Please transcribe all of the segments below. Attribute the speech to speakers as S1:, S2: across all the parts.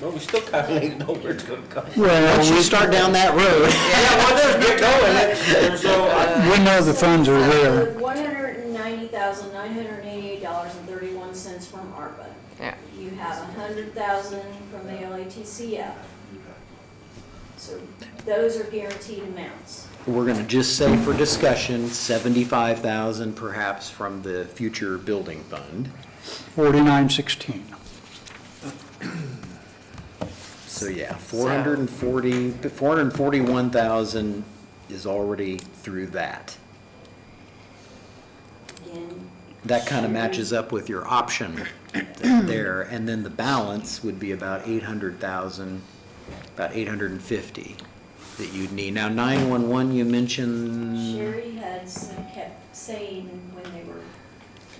S1: Well, we still kind of need to know where it's gonna come.
S2: Well,
S3: Once you
S2: we-
S3: start down that road,
S1: Yeah, well, there's, get going, and so, uh, I-
S2: we know the funds are there.
S4: One hundred and ninety thousand, nine hundred and eighty-eight dollars and thirty-one cents from ARPA.
S5: Yeah.
S4: You have a hundred thousand from the LATCF. So those are guaranteed amounts.
S3: we're gonna just say for discussion, seventy-five thousand perhaps from the future building fund.
S2: Forty-nine sixteen.
S3: So yeah, four hundred and forty, four hundred and forty-one thousand is already through that.
S4: Again,
S3: That kind of matches up with your option there, and then the balance would be about eight hundred thousand, about eight hundred and fifty that you'd need. Now, nine-one-one, you mentioned,
S4: Sherry had some, kept saying when they were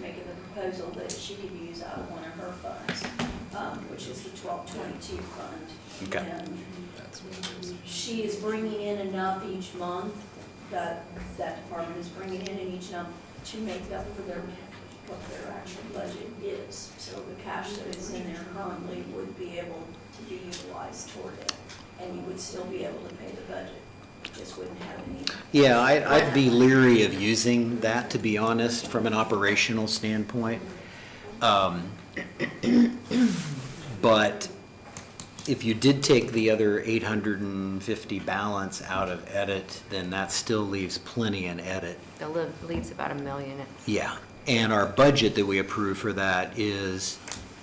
S4: making the proposal that she could use out of one of her funds, um, which is the twelve twenty-two fund.
S3: Okay.
S4: And She is bringing in enough each month, that, that department is bringing in each month to make up for their, what their actual budget is. So the cash that is in there currently would be able to be utilized toward it, and you would still be able to pay the budget, just wouldn't have any
S3: yeah, I, I'd be leery of using that, to be honest, from an operational standpoint. Um, But if you did take the other eight hundred and fifty balance out of edit, then that still leaves plenty in edit
S5: The li- leaves about a million,
S3: Yeah, and our budget that we approve for that is,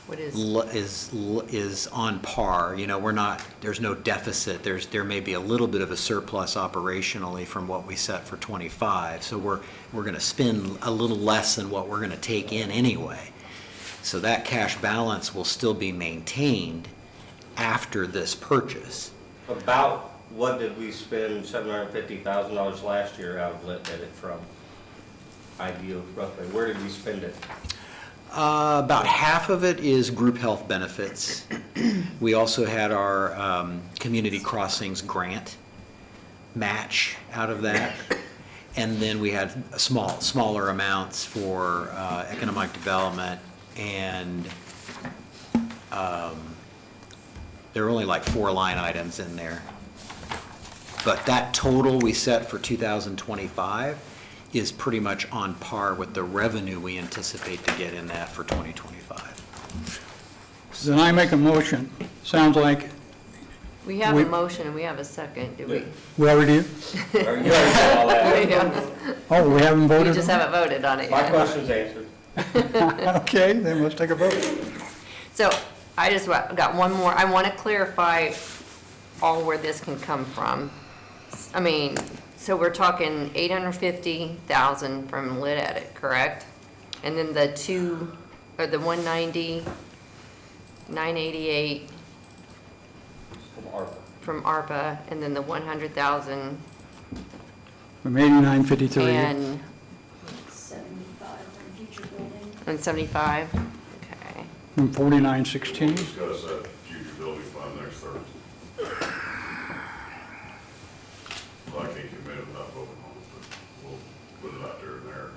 S5: what is,
S3: l- is, l- is on par. You know, we're not, there's no deficit, there's, there may be a little bit of a surplus operationally from what we set for '25. So we're, we're going to spend a little less than what we're going to take in anyway. So that cash balance will still be maintained after this purchase.
S1: about what did we spend seven hundred and fifty thousand dollars last year out of lit edit from? Ideal roughly, where did we spend it?
S3: Uh, About half of it is group health benefits. We also had our um, Community Crossings grant match out of that. And then we had a small, smaller amounts for uh, economic development and um, there were only like four line items in there. But that total we set for 2025 is pretty much on par with the revenue we anticipate to get in that for 2025.
S2: Then I make a motion. Sounds like,
S5: we have
S2: We-
S5: a motion and we have a second, do we?
S2: we already, do?
S1: Or you already said all that.
S5: We don't-
S2: oh, we haven't
S5: we
S2: voted?
S5: just
S2: on it?
S5: haven't voted on it
S1: My
S5: yet.
S1: question's answered.
S2: Okay, then let's take a vote.
S5: So I just wa- got one more, I want to clarify all where this can come from. I mean, so we're talking 850,000 from Lit Edit, correct? And then the two, or the 190, 988
S1: From ARPA.
S5: from ARPA, and then the 100,000
S2: From eighty-nine fifty-three.
S5: and
S4: seventy-five on future building.
S5: And 75? Okay.
S2: From forty-nine sixteen.
S6: Discuss that future building fund next Thursday. Well, I can't commit without voting on it, but we'll put it out there and there.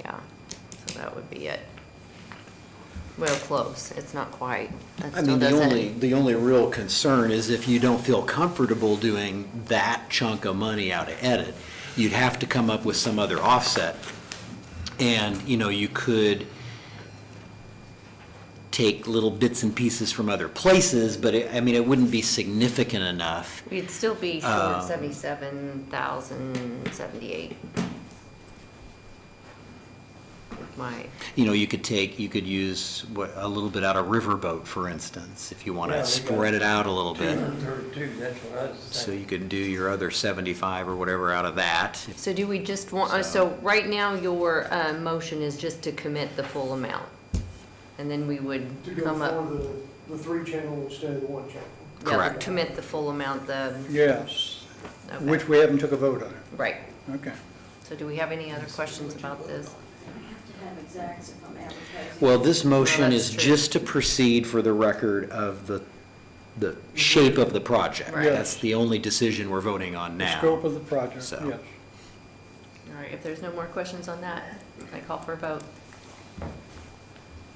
S5: Yeah. So that would be it. Well, close. It's not quite. That
S3: I
S5: still
S3: mean, the
S5: doesn't-
S3: only, the only real concern is if you don't feel comfortable doing that chunk of money out of edit, you'd have to come up with some other offset. And, you know, you could take little bits and pieces from other places, but it, I mean, it wouldn't be significant enough.
S5: We'd still be short
S3: Um,
S5: 77,078. My,
S3: You know, you could take, you could use what- a little bit out of Riverboat, for instance, if you want
S7: Yeah,
S3: to
S7: we got
S3: spread it out a little bit.
S7: 232, that's what I was
S3: So
S7: thinking.
S3: you could do your other 75 or whatever out of that, if
S5: so do we just want, uh, so right now, your uh, motion is just to commit the full amount? And then we would
S8: To go
S5: come up,
S8: for the, the three channel instead of the one channel.
S5: yeah,
S3: Correct.
S5: commit the full amount, the,
S2: Yes,
S5: okay.
S2: which we haven't took a vote on.
S5: right.
S2: Okay.
S5: So do we have any other questions about this?
S4: I have to have exacts if I'm advertising.
S3: Well, this motion
S5: that's
S3: is
S5: true.
S3: just to proceed for the record of the, the shape of the project.
S5: Right.
S3: That's the only decision we're voting on
S2: The
S3: now.
S2: scope of the project,
S3: So.
S2: yes.
S5: All right, if there's no more questions on that, I call for a vote.